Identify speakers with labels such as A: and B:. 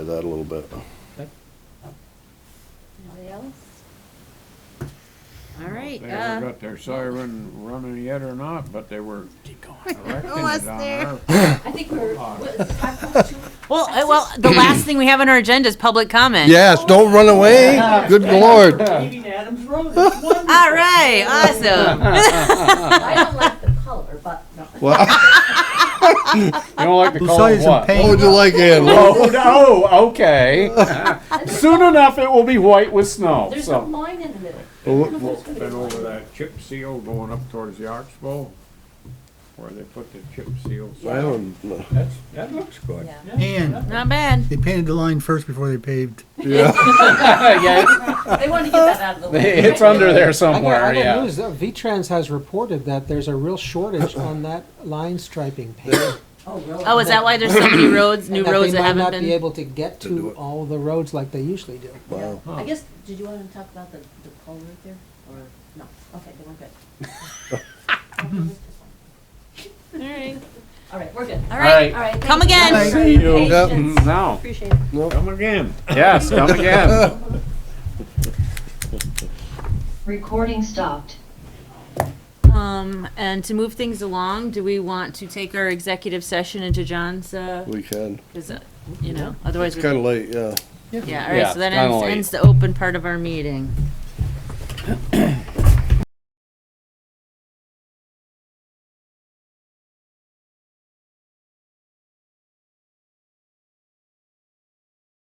A: that a little bit.
B: Anybody else? All right.
C: They
B: uh,
C: ever got their siren running yet or not, but they were erecting it on
B: Almost there.
C: our
D: I think we're,
C: Alright.
D: what, five point two?
B: Well, uh, well, the last thing we have on our agenda is public comment.
A: Yes, don't run away. Good lord.
E: Leaving Adams Road, it's wonderful.
B: All right, awesome.
D: I don't like the color, but no.
A: Well,
C: You don't like the color of what?
A: How would you like it?
C: Oh, no, oh, okay. Soon enough, it will be white with snow,
D: There's a
C: so.
D: line in the middle.
C: Been over that chip seal going up towards the Oxbow, where they put the chip seal.
A: I don't-
C: That's, that looks good.
D: Yeah.
F: And
B: Not bad.
F: they painted the line first before they paved.
A: Yeah,
C: Yeah,
D: They want to get that out of the way.
C: It's under there
G: I got,
C: somewhere,
G: I got
C: yeah.
G: news. Uh, V-Trans has reported that there's a real shortage on that line striping paint.
D: Oh, really?
B: Oh, is that why there's so many roads, new
G: and that
B: roads
G: they
B: that
G: might
B: haven't
G: not be
B: been?
G: able to get to,
A: do it.
G: all the roads like they usually do.
A: wow.
D: I guess, did you want to talk about the, the color there, or, no? Okay, then we're good. All right, we're good.
B: All right,
D: All right. thank
B: Come
D: you
B: again.
D: very
C: See you.
D: much.
A: Yep.
D: Patience.
C: Now,
D: Appreciate it.
C: come again. Yes, come again.
H: Recording stopped.
B: um, and to move things along, do we want to take our executive session into John's, uh,
A: We can.
B: 'cause, uh, you know, otherwise,
A: It's
B: we-
A: kind of late, yeah.
B: yeah, all
C: Yeah,
B: right, so that
C: it's kinda
B: ends,
C: late.
B: ends the open part of our meeting.